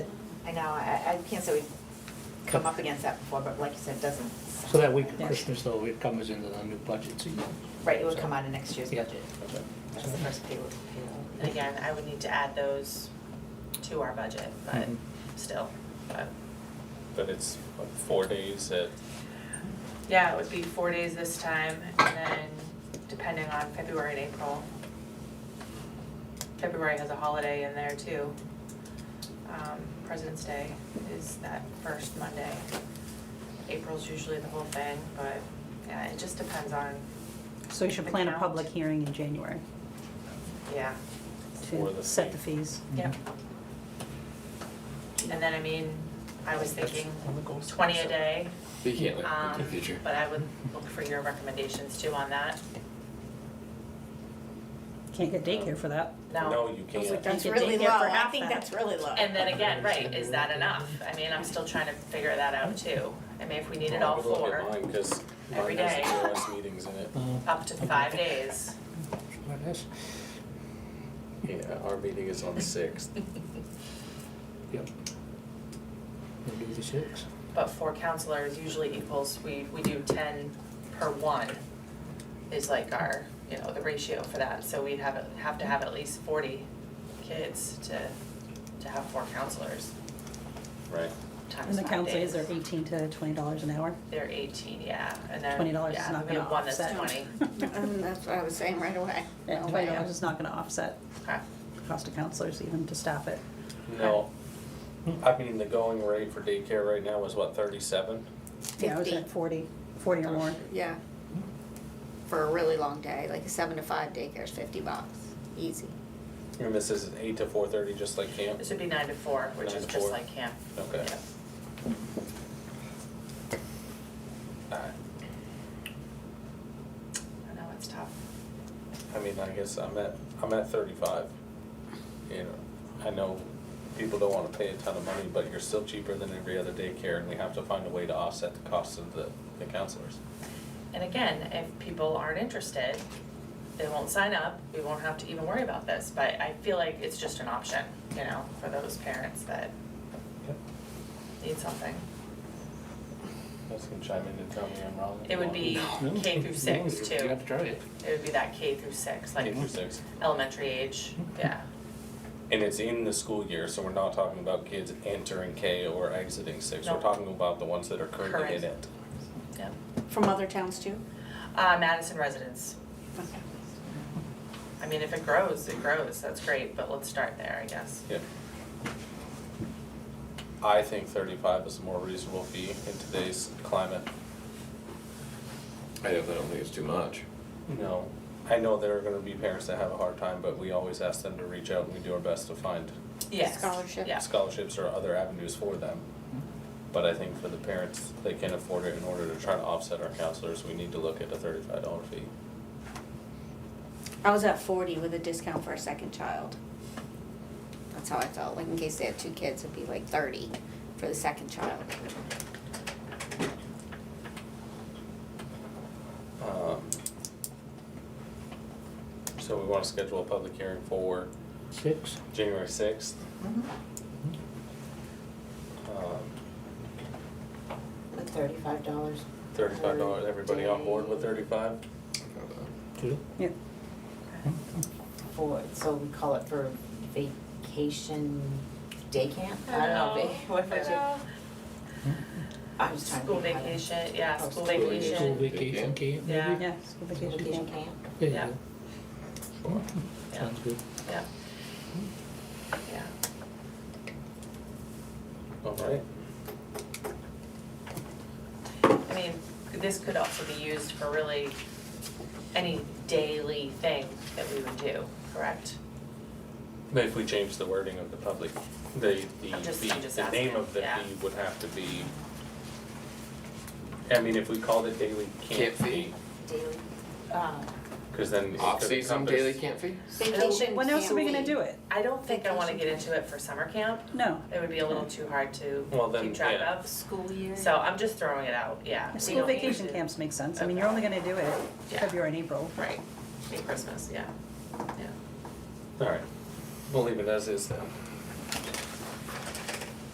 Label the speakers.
Speaker 1: I know, I, I can't say we've come up against that before, but like you said, it doesn't.
Speaker 2: So that week of
Speaker 1: Yeah.
Speaker 2: Christmas though, it comes into the new budget season.
Speaker 1: Right, it would come out of next year's
Speaker 2: Yeah.
Speaker 1: budget. That's the first payroll. payroll.
Speaker 3: And again, I would need to add those to our budget, but
Speaker 2: Mhm.
Speaker 4: Mm-hmm.
Speaker 3: still, but,
Speaker 5: But it's what, four days at,
Speaker 3: yeah, it would be four days this time, and then depending on February and April. February has a holiday in there too. Um, President's Day is that first Monday. April's usually the whole thing, but, yeah, it just depends on,
Speaker 4: So you should plan a public hearing in January
Speaker 3: yeah.
Speaker 5: For the
Speaker 4: to set the
Speaker 5: fee.
Speaker 4: fees.
Speaker 3: Yep. And then, I mean, I was thinking twenty a day,
Speaker 6: But you can't look
Speaker 3: um,
Speaker 6: into the future.
Speaker 3: but I would look for your recommendations too on that.
Speaker 4: Can't get daycare for that.
Speaker 3: No,
Speaker 5: no, you can't.
Speaker 4: that's really low. I think that's
Speaker 1: really low.
Speaker 3: and then again, right, is that enough? I mean, I'm still trying to figure that out too. I mean, if we needed all
Speaker 5: Well, I would look
Speaker 3: four,
Speaker 5: at mine, cause
Speaker 3: every
Speaker 5: mine has
Speaker 3: day.
Speaker 5: EOS meetings in it.
Speaker 2: Uh,
Speaker 3: up to five days,
Speaker 2: what else?
Speaker 5: Yeah, our meeting is on the sixth.
Speaker 2: Yep. We'll do the six.
Speaker 3: but four counselors usually equals, we, we do ten per one is like our, you know, the ratio for that. So we'd have, have to have at least forty kids to, to have four counselors
Speaker 5: Right.
Speaker 3: times
Speaker 4: And the
Speaker 3: five
Speaker 4: council is
Speaker 3: days.
Speaker 4: they're eighteen to twenty dollars an hour.
Speaker 3: They're eighteen, yeah, and they're,
Speaker 4: Twenty dollars is
Speaker 3: yeah,
Speaker 4: not
Speaker 3: we
Speaker 4: gonna
Speaker 3: have one that's
Speaker 4: offset.
Speaker 3: twenty,
Speaker 7: And that's what I was saying right away.
Speaker 4: Yeah,
Speaker 7: No
Speaker 4: twenty
Speaker 7: way.
Speaker 4: dollars is not gonna offset
Speaker 3: okay.
Speaker 4: the cost of counselors even to staff it.
Speaker 5: No, I mean, the going rate for daycare right now is what, thirty-seven?
Speaker 4: Yeah, I was at
Speaker 7: Fifty.
Speaker 4: forty, forty or more.
Speaker 7: Yeah. For a really long day, like a seven to five daycare is fifty bucks, easy.
Speaker 5: And this is eight to four thirty, just like camp?
Speaker 3: This would be nine to four, which
Speaker 5: Nine
Speaker 3: is
Speaker 5: to
Speaker 3: just
Speaker 5: four.
Speaker 3: like camp.
Speaker 5: Okay.
Speaker 3: Yeah.
Speaker 5: Alright,
Speaker 3: I know, it's tough.
Speaker 5: I mean, I guess I'm at, I'm at thirty-five. You know, I know people don't wanna pay a ton of money, but you're still cheaper than every other daycare and we have to find a way to offset the cost of the, the counselors.
Speaker 3: And again, if people aren't interested, they won't sign up, we won't have to even worry about this, but I feel like it's just an option, you know, for those parents that
Speaker 5: Yep.
Speaker 3: need something.
Speaker 5: Guys can chime in and tell me I'm wrong. if
Speaker 3: It
Speaker 5: you
Speaker 3: would
Speaker 5: want.
Speaker 3: be
Speaker 2: No,
Speaker 3: K through
Speaker 2: no,
Speaker 3: six
Speaker 2: you-
Speaker 3: too.
Speaker 2: You have to try it.
Speaker 3: It would be that K through six,
Speaker 5: K
Speaker 3: like
Speaker 5: through six.
Speaker 3: elementary age,
Speaker 2: Mm-hmm.
Speaker 3: yeah.
Speaker 5: And it's in the school year, so we're not talking about kids entering K or exiting six, we're
Speaker 3: No.
Speaker 5: talking about the ones that are currently in
Speaker 3: Correct.
Speaker 5: it.
Speaker 7: From other towns too?
Speaker 3: Uh, Madison residents, I mean, if it grows, it grows, that's great, but let's start there, I guess.
Speaker 5: Yeah. I think thirty-five is a more reasonable fee in today's climate.
Speaker 6: I definitely don't think it's too much.
Speaker 5: No. I know there are gonna be parents that have a hard time, but we always ask them to reach out and we do our best to find
Speaker 3: Yes,
Speaker 7: Scholarship.
Speaker 3: yeah.
Speaker 5: scholarships or other avenues for them. But I think for the parents, they can afford it in order to try to offset our counselors, we need to look at a thirty-five dollar fee.
Speaker 7: I was at forty with a discount for a second child. That's how I felt, like in case they had two kids, it'd be like thirty for the second child.
Speaker 5: Um, So we wanna schedule a public hearing for
Speaker 2: Six.
Speaker 5: January sixth.
Speaker 1: Mhm.
Speaker 5: Um,
Speaker 1: With thirty-five dollars.
Speaker 5: Thirty-five dollars, everybody on board with thirty-five?
Speaker 2: Two.
Speaker 4: Yeah,
Speaker 1: For, so we call it for vacation day camp? I don't know, va- what if I should- I was trying to.
Speaker 3: School
Speaker 1: think how to-
Speaker 3: vacation, yeah,
Speaker 1: Oh,
Speaker 3: school
Speaker 6: vacation.
Speaker 2: School vacation
Speaker 3: vacation,
Speaker 2: camp, maybe?
Speaker 3: Yeah.
Speaker 4: yeah, school vacation
Speaker 1: Vacation
Speaker 4: camp.
Speaker 1: camp?
Speaker 2: There you
Speaker 3: Yeah.
Speaker 2: go.
Speaker 5: Sure.
Speaker 3: yeah,
Speaker 2: Sounds good.
Speaker 3: yeah. Yeah,
Speaker 5: All right.
Speaker 3: I mean, this could also be used for really any daily thing that we would do, correct?
Speaker 5: But if we change the wording of the public, the, the,
Speaker 3: I'm just-
Speaker 5: the,
Speaker 3: I'm just
Speaker 5: the name
Speaker 3: asking,
Speaker 5: of the
Speaker 3: yeah.
Speaker 5: fee would have to be. I mean, if we called it daily camp
Speaker 6: Camp fee.
Speaker 5: fee,
Speaker 1: Daily, um,
Speaker 5: cause then it could
Speaker 6: Off-season
Speaker 5: encompass-
Speaker 6: daily camp fee?
Speaker 7: Vacation
Speaker 4: When else are we
Speaker 7: camp
Speaker 4: gonna
Speaker 7: week.
Speaker 4: do it?
Speaker 3: I don't think I wanna get into it for summer camp,
Speaker 4: No.
Speaker 3: it would be a little too hard to
Speaker 5: Mm. Well, then,
Speaker 3: keep track
Speaker 5: yeah.
Speaker 3: of,
Speaker 1: School
Speaker 7: Mm.
Speaker 1: year.
Speaker 3: so I'm just throwing it out, yeah. we
Speaker 4: School
Speaker 3: don't need
Speaker 4: vacation
Speaker 3: to-
Speaker 4: camps make sense. I mean, you're only gonna do it
Speaker 3: Yeah.
Speaker 4: February and April.
Speaker 3: Right, be Christmas, yeah, yeah.
Speaker 5: All right, we'll leave it as is then.